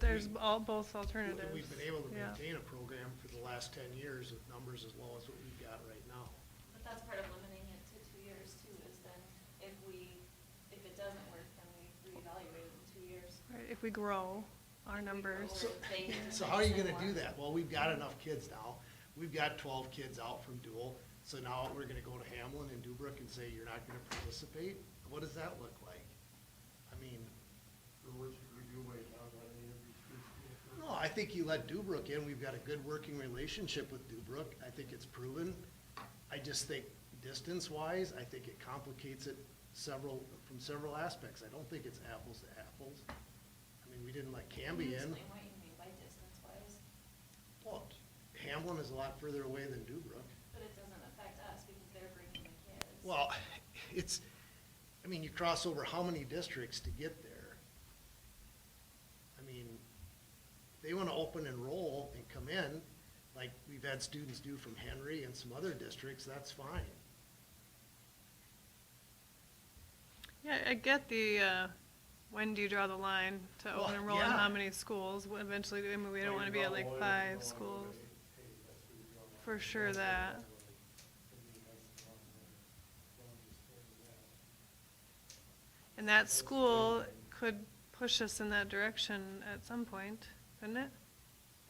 There's all, both alternatives. We've been able to yeah. maintain a program for the last ten years with numbers as low as what we've got right now. But that's part of limiting it to two years too, is then if we, if it doesn't work, then we reevaluate it in two years. Right, if we grow our numbers, So they can So how are you make gonna do more. that? Well, we've got enough kids now. We've got twelve kids out from dual, so now we're gonna go to Hamlin and Dubrook and say, you're not gonna participate? What does that look like? I mean, no, I think you let Dubrook in. We've got a good working relationship with Dubrook. I think it's proven. I just think distance-wise, I think it complicates it several, from several aspects. I don't think it's apples to apples. I mean, we didn't let Can Camby you in. Explain what you mean by distance wise, Well, Hamlin is a lot further away than Dubrook. but it doesn't affect us because they're bringing the kids. Well, it's, I mean, you cross over how many districts to get there? I mean, they wanna open enroll and come in, like we've had students do from Henry and some other districts, that's fine. yeah, I get the, uh, when do you draw the line to Well, open enroll in yeah. how many schools? Well, Eventually, I mean, we don't wanna be at like five schools. For sure that. And that school could push us in that direction at some point, couldn't it?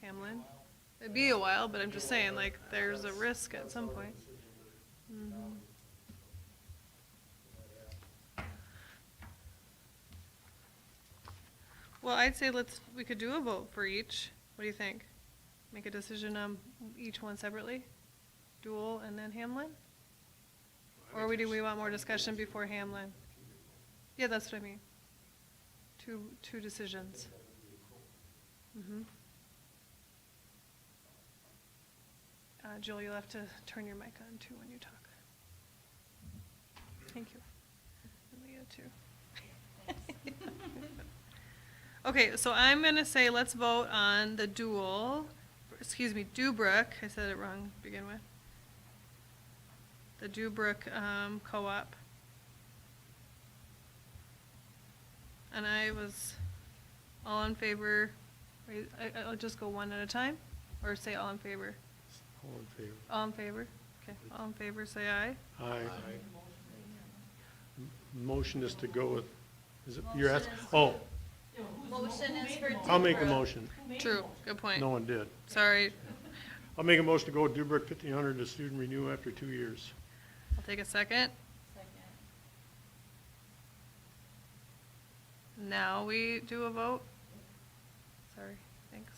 Hamlin? It'd be a while, but I'm just saying, like, there's a risk at some point. Mhm. Well, I'd say let's, we could do a vote for each. What do you think? Make a decision on each one separately? Dual and then Hamlin? Or we do, we want more discussion before Hamlin? Yeah, that's what I mean. Two, two decisions. Mm-hmm. Uh, Jill, you'll have to turn your mic on too when you talk. Thank you. And Leah too. Okay, so I'm gonna say let's vote on the dual, excuse me, Dubrook, I said it wrong to begin with. The Dubrook, um, co-op. And I was all in favor, wait, I, I'll just go one at a time, or say all in favor? All in favor? All in favor? Okay, all in favor, say aye. Aye. M- Motion is to go with, is it, you're Motion asking, is- oh, Motion is for. I'll make a Dubrow. motion. True, good point. No one did. Sorry, I'll make a motion to go with Dubrick fifteen hundred to student renew after two years. I'll take a second. Second. Now we do a vote? Sorry, thanks.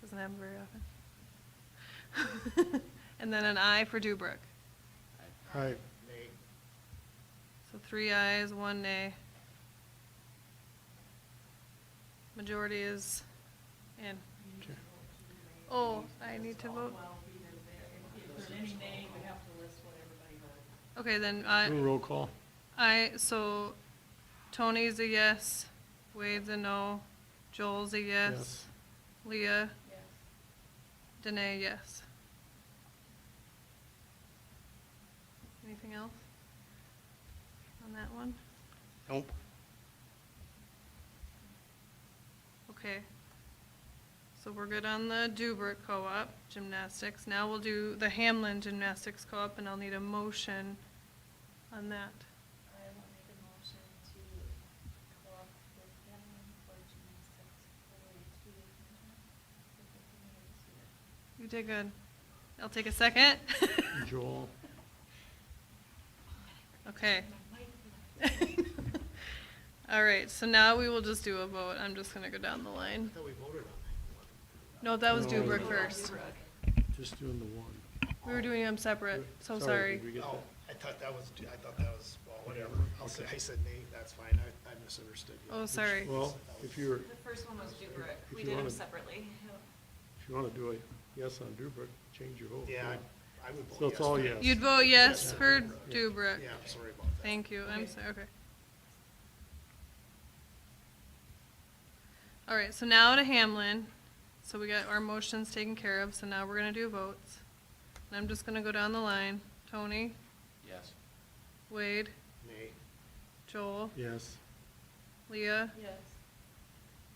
Doesn't happen very often. And then an aye for Dubrook. Aye. Nay. So three ayes, one nay. Majority is in. Okay. Oh, I need to vote? If there's any name, we have to list what everybody voted. Okay, then uh, Do a I, roll call. I, so Tony's a yes, Wade's a no, Joel's a yes, Yes. Leah, Yes. Danae, yes. Anything else on that one? Nope. Okay. So we're good on the Dubrick Co-op gymnastics. Now we'll do the Hamlin Gymnastics Co-op, and I'll need a motion on that. I will make a motion to co-op with them for gymnastics for a You did two-year contract for fifteen years here. good. I'll take a second. Joel, Okay. My mic is not- All right, so now we will just do a vote. I'm just gonna go down the line. I thought we voted on that. No, that was No. Dubrick first. just doing the one. We were doing them separate, so Sorry, sorry. did we get Oh, I that? thought that was, I thought that was, well, whatever. I'll say, I said nay, that's fine. I, I misunderstood you. Oh, sorry. Well, if you're, The first one was Dubrick. If We you did them wanna- separately. if you wanna do a yes on Dubrick, change your vote. Yeah, I- I would vote yes. So it's all for- yes. You'd vote yes for Dubrick. Yeah, I'm sorry about that. Thank you, I'm Okay. sorry, okay. All right, so now to Hamlin. So we got our motions taken care of, so now we're gonna do votes. And I'm just gonna go down the line. Tony, Yes. Wade, Nay. Joel, Yes. Leah, Yes.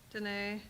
Danae,